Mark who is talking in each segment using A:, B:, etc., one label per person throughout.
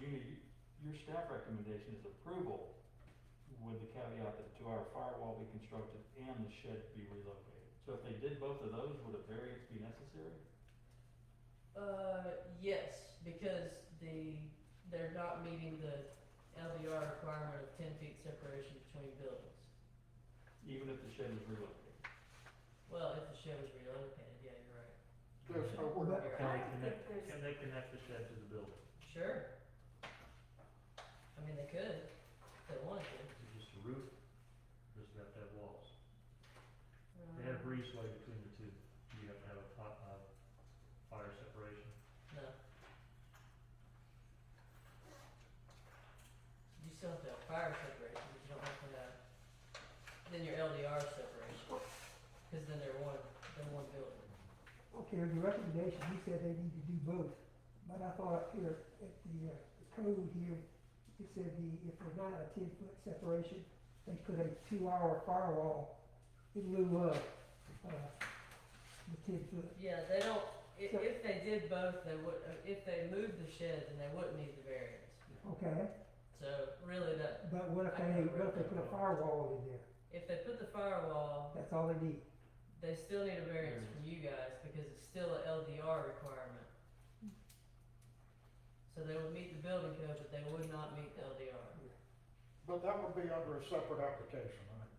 A: Judy, you- your staff recommendation is approval with the caveat that two-hour firewall be constructed and the shed be relocated. So if they did both of those, would a variance be necessary?
B: Uh, yes, because the, they're not meeting the LDR requirement of ten feet separation between buildings.
A: Even if the shed is relocated?
B: Well, if the shed was relocated, yeah, you're right.
C: There's no word.
B: You're right.
D: Can
E: I
D: they
E: don't
D: connect,
E: think there's-
D: can they connect the shed to the building?
B: Sure. I mean, they could, if they wanted to.
D: Is it just a roof? Does it have to have walls? They
B: Mm-hmm.
D: have breezeway between the two. Do you have to have a fi- uh, fire separation?
B: No. You still have to have fire separation, but you don't have to have, then your LDR separation, cause then they're one, they're one building.
F: Okay, the recommendation, he said they need to do both, but I thought here at the uh, code here, it said the, if there's not a ten foot separation, they put a two hour firewall in lieu of, uh, the ten foot.
B: Yeah, they don't, if,
F: So-
B: if they did both, they would, uh, if they moved the shed, then they wouldn't need the variance.
F: Okay,
B: So really that,
F: but what if they, what if they put a firewall in there?
B: if they put the firewall,
F: That's all they need.
B: they still need a variance from you guys because it's still a LDR requirement. So they would meet the building code, but they would not meet the LDR.
C: But that would be under a separate application, right?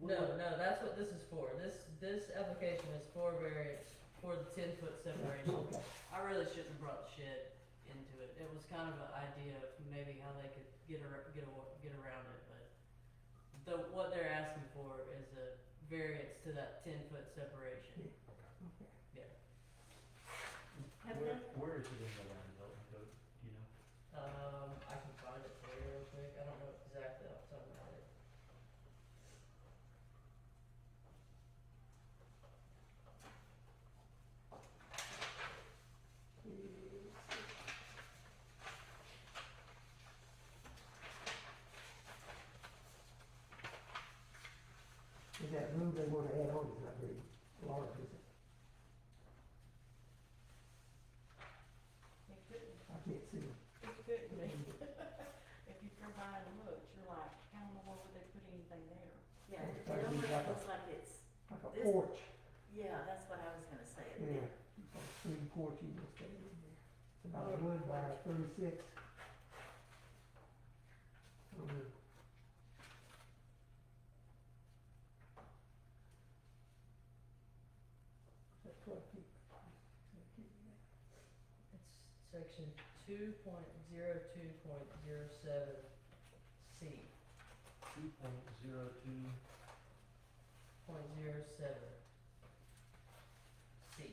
C: We
B: No,
C: would-
B: no, that's what this is for. This, this application is for variance, for the ten foot separation.
F: Okay.
B: I really shouldn't have brought shed into it. It was kind of an idea of maybe how they could get ar- get awa- get around it, but the, what they're asking for is a variance to that ten foot separation.
E: Have
D: Where,
E: they,
D: where is it in the land development code? Do you know?
B: Um, I can find it for you real quick. I don't know exactly off the top of my head.
F: Is that room they wanna add on is not very large, is it?
E: they couldn't,
F: I can't see it.
E: they couldn't be. If you go by and look, you're like, I don't know why would they put anything there?
G: Yeah,
F: Okay,
G: it
F: that'd
G: almost
F: be like a-
G: looks like it's,
F: like a
G: This-
F: porch,
G: yeah, that's what I was gonna say.
F: yeah, like a three porch you just stand in there. It's about one by thirty-six. Um, That's twelve feet.
B: It's section two point zero two point zero seven C,
D: Two point zero two.
B: point zero seven C.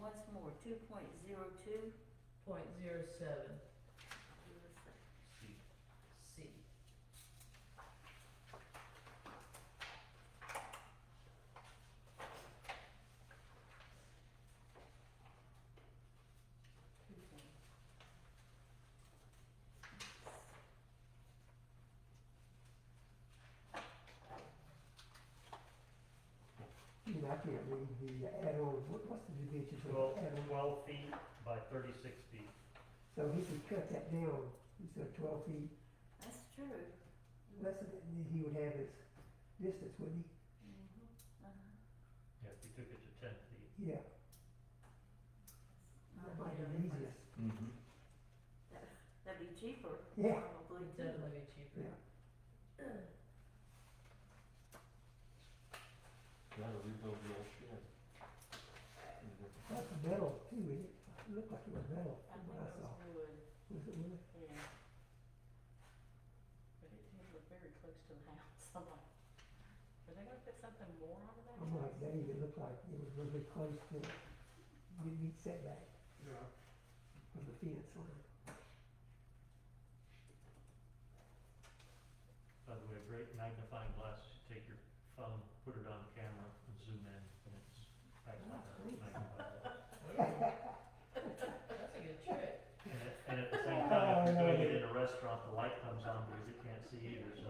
G: Once more, two point zero two.
B: Point zero seven
D: C.
B: C.
F: You know, I can't read the add-on, what, what's the dimensions of
D: Twelve,
F: the add-on?
D: twelve feet by thirty-six feet.
F: So he could cut that down, instead of twelve feet,
G: That's true.
F: less than, that, he would have his distance, wouldn't
G: Mhm, uh-huh.
D: Yeah, if you took it to ten feet.
F: he? Yeah, that might be the easiest,
A: Mm-hmm.
G: That'd be cheaper,
F: yeah.
G: probably
B: Would
G: too.
B: definitely be cheaper.
A: Gotta rebuild the old shed. And the-
F: That's metal too, isn't it? It looked like it was metal
E: I
F: from
E: think
F: what I
E: it
F: saw.
E: was wood,
F: Was it wood?
E: yeah. But it did look very close to the house, I'm like, are they gonna put something more on that?
F: I'm like, that even looked like it was really close to, you meet setback
C: Yeah.
F: from the fence line.
D: By the way, a great magnifying glass, you take your phone, put it on camera and zoom in and it's actually a magnifying glass.
B: That's a good trick.
D: And at, and at the same time, if you're doing it in a restaurant, the light comes on because you can't see either, so